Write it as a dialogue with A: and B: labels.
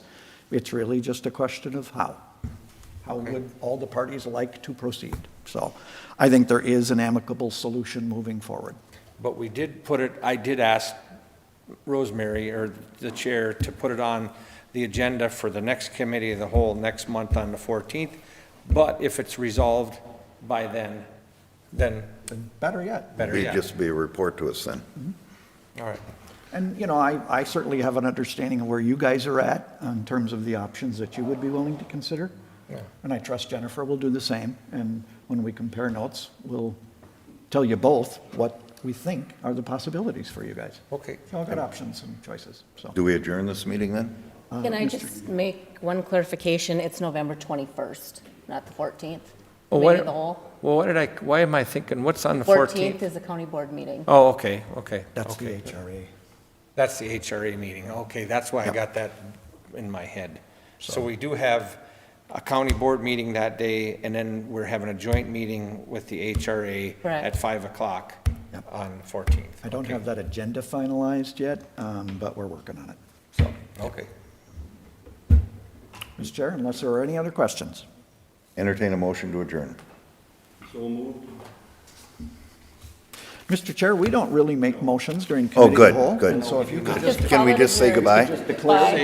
A: It's really just a question of how. How would all the parties like to proceed? So I think there is an amicable solution moving forward.
B: But we did put it, I did ask Rosemary, or the chair, to put it on the agenda for the next committee of the whole next month on the 14th. But if it's resolved by then, then
A: Better yet.
B: better
C: Be,
B: yet.
C: just be a report to us then.
B: All right.
A: And, you know, I, I certainly have an understanding of where you guys are at in terms of the options that you would be willing to consider. And I trust Jennifer will do the same. And when we compare notes, we'll tell you both what we think are the possibilities for you guys.
B: Okay.
A: You all got options and choices, so.
C: Do we adjourn this meeting then?
D: Can I just make one clarification? It's November 21st, not the 14th.
E: Well,
D: Committee
E: what,
D: of the whole.
E: well, what did I, why am I thinking, what's on the
D: 14th
E: 14th?
D: is a county board meeting.
E: Oh, okay, okay.
A: That's the
E: okay.
A: HRA.
B: That's the HRA meeting. Okay, that's why I got that in my head. So we do have a county board meeting that day, and then we're having a joint meeting with the HRA
D: Correct.
B: at 5 o'clock
A: Yep.
B: on 14th.
A: I don't
B: Okay.
A: have that agenda finalized yet, um, but we're working on it.
B: Okay.
A: Mr. Chair, unless there are any other questions?
C: Entertain a motion to adjourn.
A: Mr. Chair, we don't really make motions during committee of the
C: Oh, good,
A: whole.
C: good.
A: And so if you could just
C: Can we
D: Call it
C: just say
D: adjourned.
C: goodbye?
A: declare.